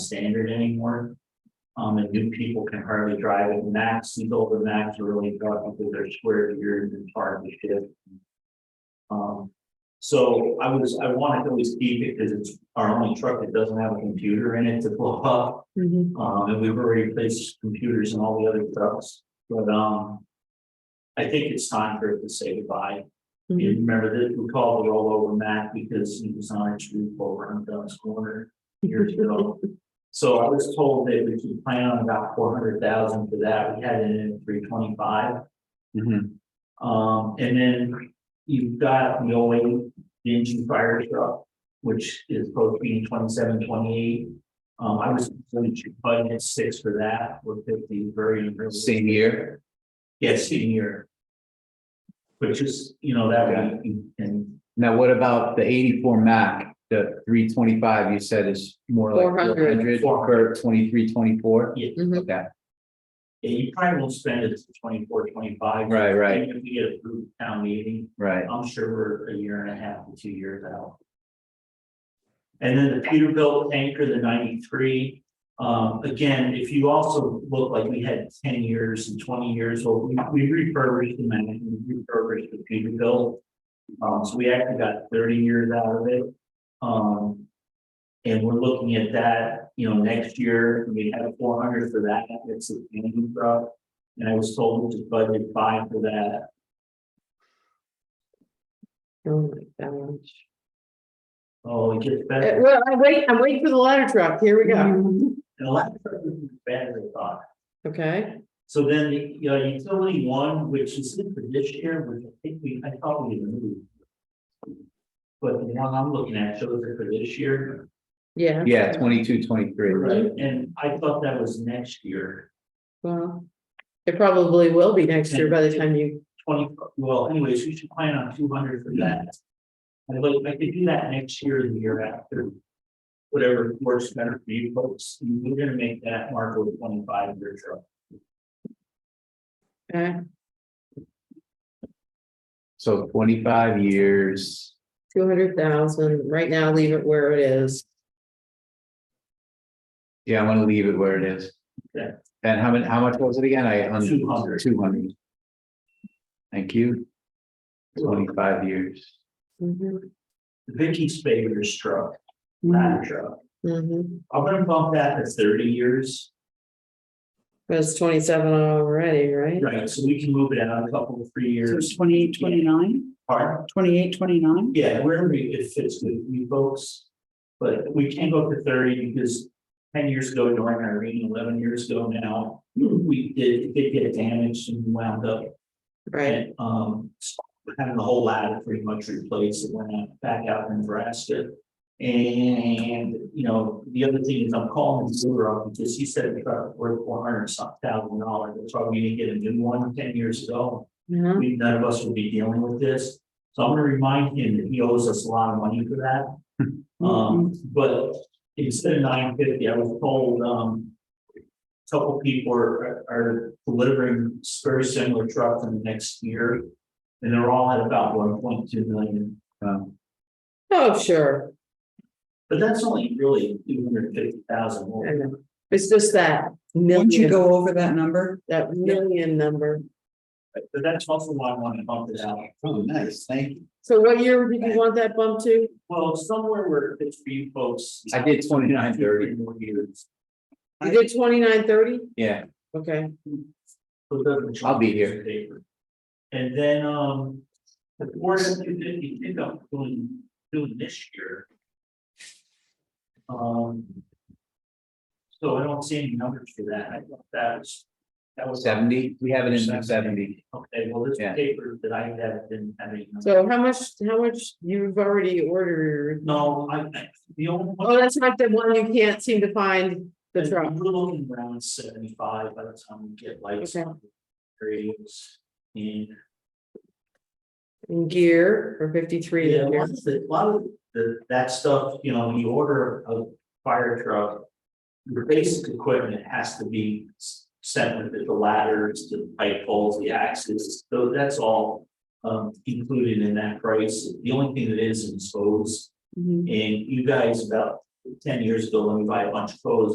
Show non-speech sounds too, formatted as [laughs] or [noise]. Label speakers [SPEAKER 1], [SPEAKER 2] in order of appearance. [SPEAKER 1] standard anymore. Um, and new people can hardly drive it. Max, these older Macs are really tough because they're square geared and hard to shift. Um, so I was, I wanted to always keep it because it's our only truck that doesn't have a computer in it to blow up.
[SPEAKER 2] Mhm.
[SPEAKER 1] Um, and we've already replaced computers and all the other trucks, but, um. I think it's time for it to say goodbye. You
[SPEAKER 2] Mhm.
[SPEAKER 1] remember that we called the rollover Mac because he was on its roof over on Dunn's Corner years ago. So I was told that we could plan on about four hundred thousand for that. We had it in three twenty-five.
[SPEAKER 3] Mm-hmm.
[SPEAKER 1] Um, and then you've got the old engine fire truck, which is supposed to be twenty-seven, twenty-eight. Um, I was going to budget six for that, with fifty, very.
[SPEAKER 3] Same year,
[SPEAKER 1] Yeah, same year. But just, you know, that way you can,
[SPEAKER 3] now what about the eighty-four Mac, the three twenty-five you said is more like
[SPEAKER 2] 400.
[SPEAKER 3] 400 for twenty-three, twenty-four?
[SPEAKER 1] Yeah.
[SPEAKER 2] Mhm.
[SPEAKER 3] Okay,
[SPEAKER 1] yeah, you probably won't spend it to twenty-four, twenty-five.
[SPEAKER 3] right, right,
[SPEAKER 1] Even If we get a group town meeting,
[SPEAKER 3] right,
[SPEAKER 1] I'm sure we're a year and a half to two years out. And then the Peterbilt tanker, the ninety-three, um, again, if you also look like we had ten years and twenty years, well, we, we refurbished the man, we refurbished the Peterbilt. Um, so we actually got thirty years out of it. Um, and we're looking at that, you know, next year, we had four hundred for that, it's a painting truck. And I was told to budget five for that,
[SPEAKER 2] Oh my gosh.
[SPEAKER 1] Oh, it gets
[SPEAKER 2] Uh,
[SPEAKER 1] better.
[SPEAKER 2] Well, I wait, I'm waiting for the ladder truck. Here we
[SPEAKER 4] Mm-hmm.
[SPEAKER 2] go.
[SPEAKER 1] And a lot of trucks are better than thought.
[SPEAKER 2] Okay,
[SPEAKER 1] So then the, you know, utility one, which is in for this year, which I think we, I thought we moved. But the one I'm looking at shows it for this year.
[SPEAKER 2] yeah.
[SPEAKER 3] yeah, twenty-two, twenty-three,
[SPEAKER 1] Right. And I thought that was next year,
[SPEAKER 2] Well, it probably will be next year by the time you,
[SPEAKER 1] twenty, well, anyways, we should plan on two hundred for that. I'd like, I could do that next year, or the year after. Whatever works better for you folks, we're gonna make that Marco twenty-five year truck.
[SPEAKER 2] uh,
[SPEAKER 3] so twenty-five years.
[SPEAKER 2] two hundred thousand, right now leave it where it is.
[SPEAKER 3] Yeah, I wanna leave it where it is.
[SPEAKER 1] Okay.
[SPEAKER 3] And how many, how much was it again? I.
[SPEAKER 1] 200.
[SPEAKER 3] Two hundred. Thank you. Twenty-five years.
[SPEAKER 4] Mm-hmm.
[SPEAKER 2] Mhm,
[SPEAKER 1] Vicky Spader's truck,
[SPEAKER 2] Mm-hmm.
[SPEAKER 1] that truck.
[SPEAKER 2] mhm.
[SPEAKER 1] I'm gonna bump that to thirty years,
[SPEAKER 2] But it's twenty-seven already, right?
[SPEAKER 1] right, so we can move it out a couple of three
[SPEAKER 4] So
[SPEAKER 1] years.
[SPEAKER 4] twenty-eight, twenty-nine,
[SPEAKER 1] Pardon?
[SPEAKER 4] twenty-eight, twenty-nine?
[SPEAKER 1] Yeah, wherever it fits with you folks. But we can't go up to thirty because ten years ago during Irene, eleven years ago now, we did, did get damaged and wound up.
[SPEAKER 2] Right,
[SPEAKER 1] and, Um, having the whole ladder pretty much replaced, it went out- back out in Nebraska. And, you know, the other thing is I'm calling Zimmer up because he said it's about worth four hundred some thousand dollars, that's why we didn't get a new one ten years ago.
[SPEAKER 2] yeah,
[SPEAKER 1] We, none of us would be dealing with this, so I'm gonna remind him that he owes us a lot of money for
[SPEAKER 3] [laughs]
[SPEAKER 1] that. Um, but instead of nine fifty, I was told, um. a Couple people are, are delivering very similar trucks in the next year, and they're all at about one point two million.
[SPEAKER 3] Um,
[SPEAKER 2] oh, sure,
[SPEAKER 1] But that's only really two hundred fifty thousand more.
[SPEAKER 2] I know, it's just that
[SPEAKER 4] Once you
[SPEAKER 2] million,
[SPEAKER 4] go over that number,
[SPEAKER 2] that million number.
[SPEAKER 1] But that's also why I want to bump it out.
[SPEAKER 3] Oh, nice, thank you.
[SPEAKER 2] So what year did you want that bump to?
[SPEAKER 1] Well, somewhere where it's for you folks.
[SPEAKER 3] I did 29, 30.
[SPEAKER 1] Two, three More years.
[SPEAKER 2] You did twenty-nine, thirty?
[SPEAKER 3] Yeah.
[SPEAKER 2] Okay,
[SPEAKER 1] So it doesn't
[SPEAKER 3] I'll be
[SPEAKER 1] change
[SPEAKER 3] here.
[SPEAKER 1] the paper. And then, um, the board of two fifty pickup doing, doing this year. Um. So I don't see any numbers for that, I thought that was, that was.
[SPEAKER 3] Seventy, we have it in the seventy.
[SPEAKER 1] Okay, well, this
[SPEAKER 3] Yeah.
[SPEAKER 1] paper that I had didn't have any. numbers.
[SPEAKER 2] so how much, how much you've already ordered?
[SPEAKER 1] No, I, I- the only. one-
[SPEAKER 2] Oh, that's right, the one you can't seem to find the
[SPEAKER 1] And
[SPEAKER 2] truck.
[SPEAKER 1] We're looking around seventy-five by the time we get lights
[SPEAKER 2] Okay.
[SPEAKER 1] on. Grades and.
[SPEAKER 2] In gear for fifty-three.
[SPEAKER 1] Yeah,
[SPEAKER 2] in
[SPEAKER 1] a lot
[SPEAKER 2] there.
[SPEAKER 1] of the, a lot of the, that stuff, you know, when you order a fire truck. Your basic equipment has to be s- sent with it, the ladders, the pipe poles, the axes, so that's all. Um, included in that price, the only thing that is is hose,
[SPEAKER 2] Mhm.
[SPEAKER 1] and you guys about ten years ago, when we buy a bunch of hose,